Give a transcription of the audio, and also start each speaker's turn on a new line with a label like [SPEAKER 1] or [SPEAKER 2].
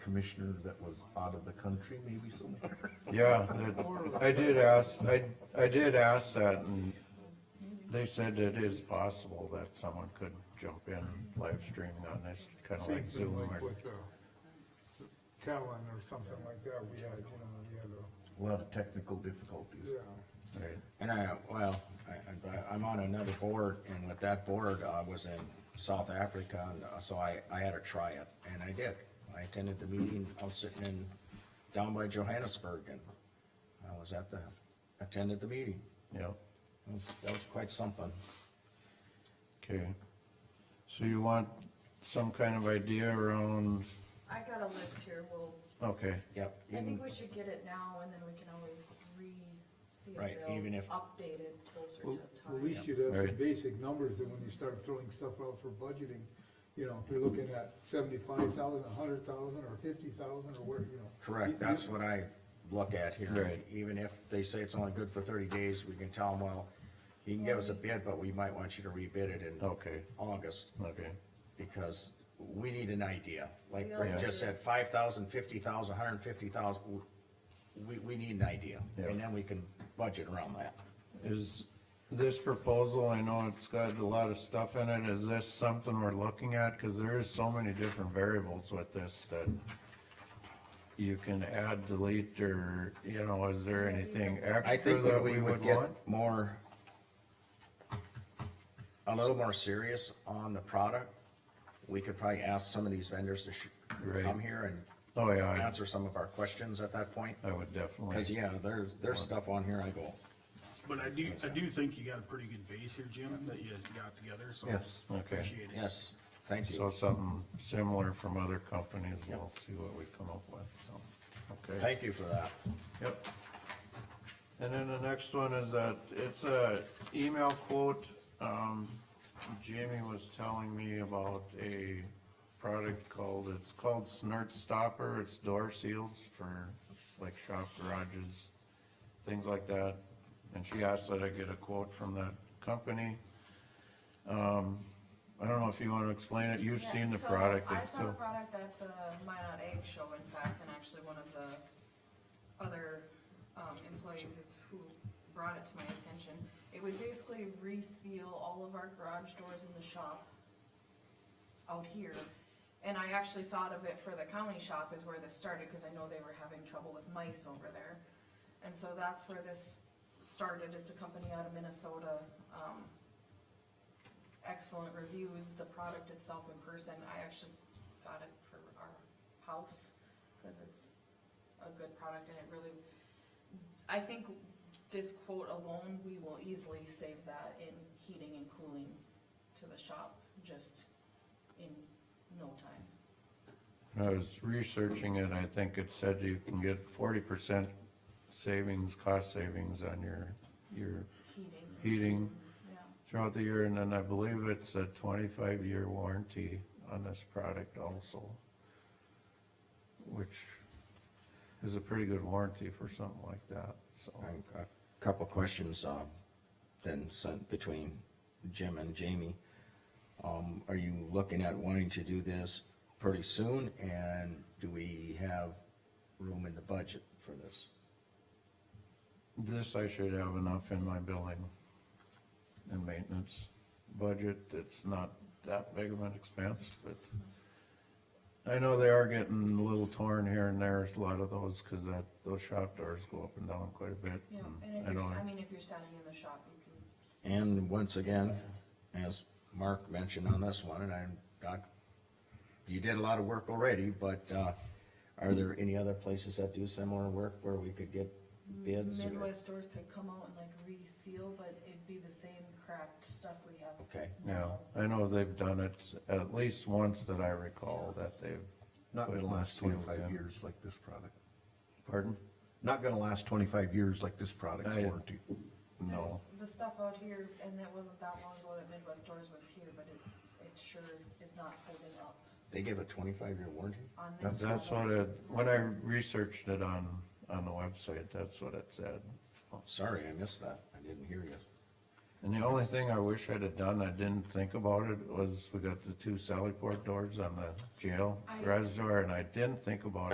[SPEAKER 1] commissioner that was out of the country maybe somewhere.
[SPEAKER 2] Yeah, that- I did ask, I, I did ask that, and they said it is possible that someone could jump in live streaming on this, kinda
[SPEAKER 3] Same
[SPEAKER 2] like
[SPEAKER 3] thing
[SPEAKER 2] Zoom
[SPEAKER 3] like
[SPEAKER 2] or,
[SPEAKER 3] with, uh, Talon or something like that, we had, you know, we had
[SPEAKER 1] A
[SPEAKER 3] a,
[SPEAKER 1] lot of technical difficulties.
[SPEAKER 3] yeah,
[SPEAKER 2] right,
[SPEAKER 4] And I, well, I, I, I'm on another board, and with that board, I was in South Africa, and uh, so I, I had to try it, and I did. I attended the meeting, I was sitting in, down by Johannesburg, and I was at the, attended the meeting.
[SPEAKER 2] yeah,
[SPEAKER 4] That was, that was quite something.
[SPEAKER 2] okay. So you want some kind of idea around,
[SPEAKER 5] I got a list here, well,
[SPEAKER 2] okay,
[SPEAKER 4] Yep.
[SPEAKER 5] I
[SPEAKER 4] even-
[SPEAKER 5] think we should get it now, and then we can always re-see if
[SPEAKER 4] Right, even if-
[SPEAKER 5] they'll update it closer
[SPEAKER 3] well,
[SPEAKER 5] to
[SPEAKER 3] well, we
[SPEAKER 5] time.
[SPEAKER 3] should have some
[SPEAKER 2] Right.
[SPEAKER 3] basic numbers, and when you start throwing stuff out for budgeting, you know, if you're looking at seventy-five thousand, a hundred thousand, or fifty thousand, or where, you know. You-
[SPEAKER 4] Correct,
[SPEAKER 5] Mm-hmm.
[SPEAKER 4] that's what I look at here.
[SPEAKER 2] Right.
[SPEAKER 4] Even if they say it's only good for thirty days, we can tell them, well, you can give us a bid, but we might want you to rebid it in
[SPEAKER 2] Okay.
[SPEAKER 4] August.
[SPEAKER 2] okay,
[SPEAKER 4] because we need an idea, like
[SPEAKER 5] We
[SPEAKER 4] Brent
[SPEAKER 5] also
[SPEAKER 4] just
[SPEAKER 5] need-
[SPEAKER 4] said, five thousand, fifty thousand, hundred and fifty thousand, we, we need an idea,
[SPEAKER 2] Yeah.
[SPEAKER 4] and then we can budget around that.
[SPEAKER 2] is this proposal, I know it's got a lot of stuff in it, is this something we're looking at? Cause there is so many different variables with this that you can add, delete, or, you know, is there anything
[SPEAKER 4] I
[SPEAKER 2] extra
[SPEAKER 4] think that
[SPEAKER 2] that
[SPEAKER 4] we would get
[SPEAKER 2] want?
[SPEAKER 4] more, a little more serious on the product, we could probably ask some of these vendors to sh-
[SPEAKER 2] Right.
[SPEAKER 4] come here
[SPEAKER 2] Oh,
[SPEAKER 4] and
[SPEAKER 2] yeah,
[SPEAKER 4] answer some of our questions at that point,
[SPEAKER 2] I I would definitely.
[SPEAKER 4] cause yeah, there's, there's stuff on here I go,
[SPEAKER 6] But I do, I do think you got a pretty good base here, Jim, that you got together, so.
[SPEAKER 4] Yes.
[SPEAKER 2] Okay.
[SPEAKER 6] Appreciate it.
[SPEAKER 4] yes, thank you.
[SPEAKER 2] So something similar from other companies, we'll see what we come up with, so, okay.
[SPEAKER 4] Thank you for that.
[SPEAKER 2] Yep. And then the next one is that, it's a email quote, um, Jamie was telling me about a product called, it's called Snort Stopper, it's door seals for like shop garages, things like that. And she asked that I get a quote from that company. Um, I don't know if you wanna explain it, you've
[SPEAKER 5] Yeah,
[SPEAKER 2] seen the
[SPEAKER 5] so
[SPEAKER 2] product,
[SPEAKER 5] I
[SPEAKER 2] it's
[SPEAKER 5] saw the
[SPEAKER 2] so,
[SPEAKER 5] product at the Minot Egg Show, in fact, and actually one of the other, um, employees is who brought it to my attention. It would basically reseal all of our garage doors in the shop out here. And I actually thought of it for the county shop is where this started, cause I know they were having trouble with mice over there. And so that's where this started, it's a company out of Minnesota, um, excellent reviews, the product itself in person, I actually got it for our house, cause it's a good product and it really, I think this quote alone, we will easily save that in heating and cooling to the shop, just in no time.
[SPEAKER 2] I was researching it, I think it said you can get forty percent savings, cost savings on your, your
[SPEAKER 5] Heating,
[SPEAKER 2] heating
[SPEAKER 5] yeah,
[SPEAKER 2] throughout the year, and then I believe it's a twenty-five year warranty on this product also. Which is a pretty good warranty for something like that, so.
[SPEAKER 4] Um, A couple questions, um, then sent between Jim and Jamie. Um, are you looking at wanting to do this pretty soon, and do we have room in the budget for this?
[SPEAKER 2] This I should have enough in my building and maintenance budget, it's not that big of an expense, but I know they are getting a little torn here and there, a lot of those, cause that, those shop doors go up and down quite a bit.
[SPEAKER 5] yeah,
[SPEAKER 2] and Mm-hmm.
[SPEAKER 5] and
[SPEAKER 2] I
[SPEAKER 5] if you're,
[SPEAKER 2] don't-
[SPEAKER 5] I mean, if you're standing in the shop, you can. s-
[SPEAKER 4] And once again, as Mark mentioned on this one, and I'm not, you did a lot of work already, but, uh, are there any other places that do similar work where we could get bids? or-
[SPEAKER 5] Midwest stores could come out and like reseal, but it'd be the same cracked stuff we have.
[SPEAKER 4] Okay,
[SPEAKER 2] Yeah, I know they've done it at least once that I recall that they've,
[SPEAKER 1] Not gonna last
[SPEAKER 2] Putting those
[SPEAKER 1] twenty-five
[SPEAKER 2] in.
[SPEAKER 1] years like this product.
[SPEAKER 2] pardon?
[SPEAKER 1] Not gonna last twenty-five years like this product's
[SPEAKER 2] I-
[SPEAKER 1] warranty.
[SPEAKER 2] No,
[SPEAKER 5] This, the stuff out here, and that wasn't that long ago that Midwest Doors was here, but it, it sure is not holding up
[SPEAKER 4] they give a twenty-five year warranty?
[SPEAKER 5] on this.
[SPEAKER 2] that's what
[SPEAKER 5] product.
[SPEAKER 2] it, when I researched it on, on the website, that's what it said.
[SPEAKER 4] Sorry, I missed that, I didn't hear you.
[SPEAKER 2] And the only thing I wish I'd have done, I didn't think about it, was we got the two Sallyport doors on the jail
[SPEAKER 5] I-
[SPEAKER 2] garage door, and I didn't think about